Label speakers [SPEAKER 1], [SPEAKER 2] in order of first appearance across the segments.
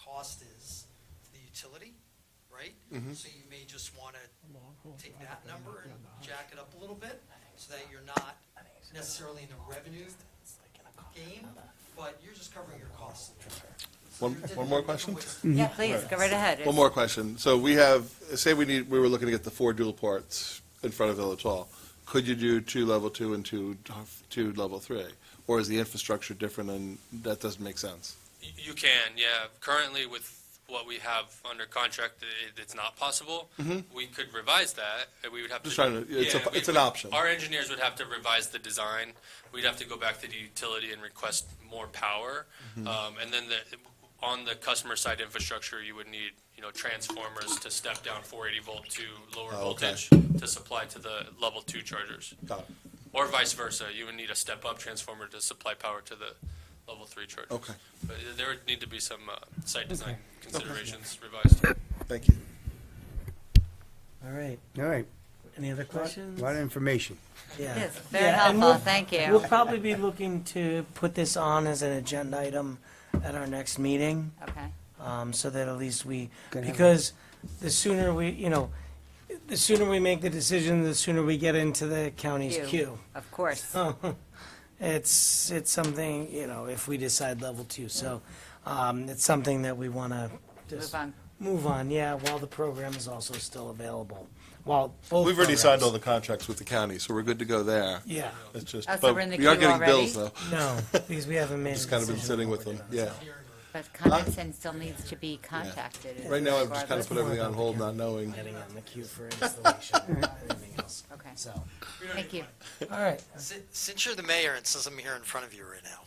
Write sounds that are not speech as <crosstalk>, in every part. [SPEAKER 1] cost is for the utility, right?
[SPEAKER 2] Mm-hmm.
[SPEAKER 1] So you may just want to take that number and jack it up a little bit so that you're not necessarily in the revenue game, but you're just covering your costs. So
[SPEAKER 2] One-
[SPEAKER 1] there are di-
[SPEAKER 2] one more
[SPEAKER 1] there are different
[SPEAKER 2] question?
[SPEAKER 1] ways-
[SPEAKER 3] Yeah, please, go right ahead.
[SPEAKER 2] One more question. So we have, say we need, we were looking to get the four dual ports in front of Village Hall. Could you do two level two and two, two level three? Or is the infrastructure different and that doesn't make sense?
[SPEAKER 4] Y- You can, yeah. Currently, with what we have under contract, it, it's not possible. We could revise that, and we would have to.
[SPEAKER 2] Mm-hmm. Just trying to- it's a-
[SPEAKER 4] Yeah, we
[SPEAKER 2] it's an
[SPEAKER 4] would-
[SPEAKER 2] option.
[SPEAKER 4] Our engineers would have to revise the design. We'd have to go back to the utility and request more power.
[SPEAKER 2] Mm-hmm.
[SPEAKER 4] Um, and then the, on the customer side infrastructure, you would need, you know, transformers to step down four eighty volt to lower
[SPEAKER 2] Oh, okay.
[SPEAKER 4] voltage to supply to the level two chargers.
[SPEAKER 2] Got it.
[SPEAKER 4] Or vice versa, you would need a step-up transformer to supply power to the level three chargers.
[SPEAKER 2] Okay.
[SPEAKER 4] But there would need to be some uh, site design considerations revised.
[SPEAKER 2] Thank you.
[SPEAKER 5] All right,
[SPEAKER 6] All right,
[SPEAKER 5] any other
[SPEAKER 6] a
[SPEAKER 5] questions?
[SPEAKER 6] lot of information.
[SPEAKER 5] Yeah.
[SPEAKER 3] Yes, very
[SPEAKER 5] Yeah, and
[SPEAKER 3] helpful,
[SPEAKER 5] we'll-
[SPEAKER 3] thank
[SPEAKER 5] We'll
[SPEAKER 3] you.
[SPEAKER 5] probably be looking to put this on as an agenda item at our next meeting,
[SPEAKER 3] Okay,
[SPEAKER 5] um, so that at least we,
[SPEAKER 6] Can have-
[SPEAKER 5] because the sooner we, you know, the sooner we make the decision, the sooner we get into the county's
[SPEAKER 3] Queue.
[SPEAKER 5] queue.
[SPEAKER 3] of course.
[SPEAKER 5] It's, it's something, you know, if we decide level two, so, um, it's something that we wanna just
[SPEAKER 3] Move on.
[SPEAKER 5] move on, yeah, while the program is also still available, while both.
[SPEAKER 2] We've already signed all
[SPEAKER 5] programs-
[SPEAKER 2] the contracts with the county, so we're good to go there.
[SPEAKER 5] Yeah,
[SPEAKER 2] It's just,
[SPEAKER 3] Oh, so
[SPEAKER 2] but
[SPEAKER 3] we're in the
[SPEAKER 2] we are
[SPEAKER 3] queue
[SPEAKER 2] getting
[SPEAKER 3] already?
[SPEAKER 2] bills though.
[SPEAKER 5] no, because we haven't made a
[SPEAKER 2] Just kind of been
[SPEAKER 5] decision.
[SPEAKER 2] sitting with them, yeah.
[SPEAKER 3] But Condon still needs to be contacted.
[SPEAKER 2] Right now, I've just kind of
[SPEAKER 3] regardless.
[SPEAKER 2] put everything on hold, not knowing.
[SPEAKER 5] Getting on the queue for installation, and everything else,
[SPEAKER 3] <laughs> Okay,
[SPEAKER 5] so,
[SPEAKER 3] thank you.
[SPEAKER 5] all right.
[SPEAKER 1] Si- Since you're the mayor and since I'm here in front of you right now,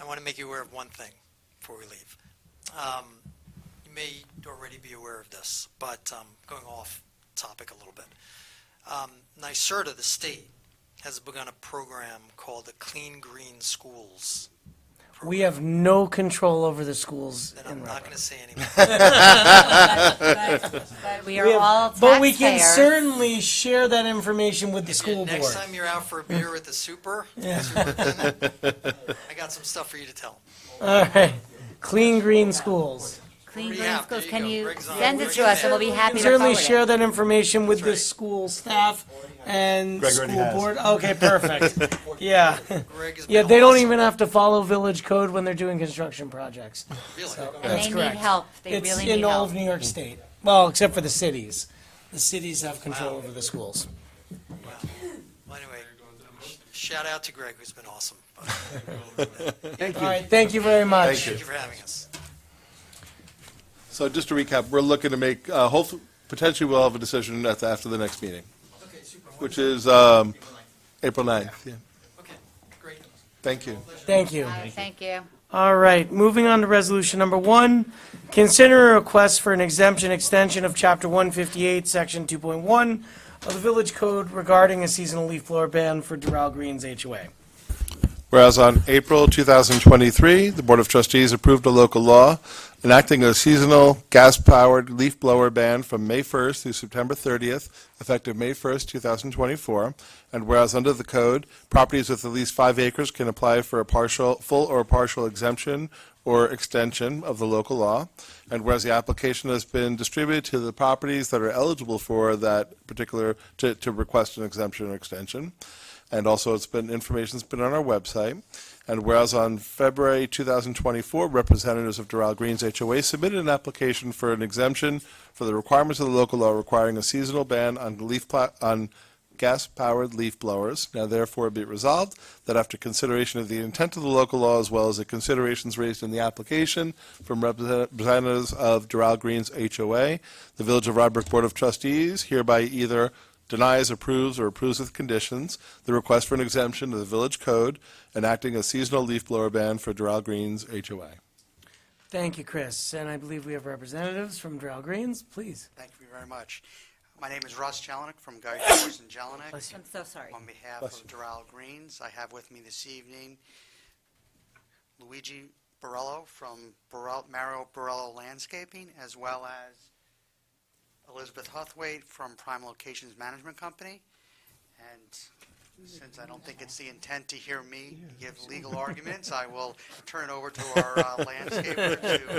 [SPEAKER 1] I want to make you aware of one thing before we leave. Um, You may already be aware of this, but um, going off topic a little bit. Um, NYSERDA, the state, has begun a program called the Clean Green Schools.
[SPEAKER 5] We have no control over the schools
[SPEAKER 1] And
[SPEAKER 5] in
[SPEAKER 1] I'm not
[SPEAKER 5] Rutland.
[SPEAKER 1] going to say anymore.
[SPEAKER 5] <laughs>
[SPEAKER 3] But we
[SPEAKER 5] We
[SPEAKER 3] are
[SPEAKER 5] have-
[SPEAKER 3] all
[SPEAKER 5] But we can
[SPEAKER 3] taxpayers.
[SPEAKER 5] certainly share that information with the school board.
[SPEAKER 1] Next time you're out for a beer with the super,
[SPEAKER 5] Yeah. <laughs>
[SPEAKER 1] superintendent, I got some stuff for you to tell.
[SPEAKER 5] All right, clean green schools.
[SPEAKER 1] Yeah,
[SPEAKER 3] Clean green
[SPEAKER 1] there
[SPEAKER 3] schools,
[SPEAKER 1] you
[SPEAKER 3] can
[SPEAKER 1] go.
[SPEAKER 3] you
[SPEAKER 1] Briggs on,
[SPEAKER 3] send it
[SPEAKER 1] Briggs
[SPEAKER 3] to us and
[SPEAKER 1] in.
[SPEAKER 3] we'll be happy
[SPEAKER 5] can
[SPEAKER 3] to
[SPEAKER 5] certainly share
[SPEAKER 3] forward it.
[SPEAKER 5] that information with the
[SPEAKER 1] right.
[SPEAKER 5] school staff and
[SPEAKER 2] Greg already
[SPEAKER 5] school
[SPEAKER 2] has.
[SPEAKER 5] board. Okay,
[SPEAKER 1] <laughs>
[SPEAKER 5] perfect. yeah.
[SPEAKER 1] Greg has
[SPEAKER 5] Yeah,
[SPEAKER 1] been
[SPEAKER 5] they don't
[SPEAKER 1] awesome.
[SPEAKER 5] even have to follow village code when they're doing construction projects.
[SPEAKER 1] Really?
[SPEAKER 5] That's
[SPEAKER 3] They need
[SPEAKER 5] correct.
[SPEAKER 3] help, they
[SPEAKER 5] It's
[SPEAKER 3] really
[SPEAKER 5] in
[SPEAKER 3] need
[SPEAKER 5] all
[SPEAKER 3] help.
[SPEAKER 5] of New York State. Well, except for the cities. The cities have control over the schools.
[SPEAKER 1] Well, anyway, shout out to Greg, who's been awesome. But
[SPEAKER 5] All right, thank you very much.
[SPEAKER 2] Thank you.
[SPEAKER 1] Thank you for having us.
[SPEAKER 2] So just to recap, we're looking to make, uh, hopefully, potentially we'll have a decision at, the- after the next meeting,
[SPEAKER 1] Okay, super.
[SPEAKER 2] which is, um, April 9th. Yeah.
[SPEAKER 1] Okay, great.
[SPEAKER 2] Thank you.
[SPEAKER 5] Thank you.
[SPEAKER 3] Uh, Thank you.
[SPEAKER 5] All right, moving on to resolution number one. Consider a request for an exemption extension of chapter one fifty-eight, section two point one of the village code regarding a seasonal leaf blower ban for Doral Greens HOA.
[SPEAKER 2] Whereas on April 2023, the Board of Trustees approved a local law enacting a seasonal gas-powered leaf blower ban from May 1st through September 30th, effective May 1st, 2024. And whereas under the code, properties with at least five acres can apply for a partial, full or partial exemption or extension of the local law. And whereas the application has been distributed to the properties that are eligible for that particular, to, to request an exemption or extension. And also, it's been, information's been on our website. And whereas on February 2024, representatives of Doral Greens HOA submitted an application for an exemption for the requirements of the local law requiring a seasonal ban on leaf, pla- on gas-powered leaf blowers. Now therefore be it resolved that after consideration of the intent of the local law as well as the considerations raised in the application from represent- representatives of Doral Greens HOA, the Village of Rybrook Board of Trustees hereby either denies, approves, or approves with conditions the request for an exemption to the village code enacting a seasonal leaf blower ban for Doral Greens HOA.
[SPEAKER 5] Thank you, Chris, and I believe we have representatives from Doral Greens, please.
[SPEAKER 7] Thank you very much. My name is Russ Jelinek from Guy Towers and Jelinek.
[SPEAKER 5] Bless you.
[SPEAKER 3] I'm so sorry.
[SPEAKER 7] On behalf
[SPEAKER 2] Bless
[SPEAKER 7] of Doral Greens, I have with me this evening Luigi Borello from Borel- Mario Borello Landscaping, as well as Elizabeth Huthwaite from Prime Locations Management Company. And since I don't think it's the intent to hear me give legal arguments, I will turn it over to our uh, landscaper to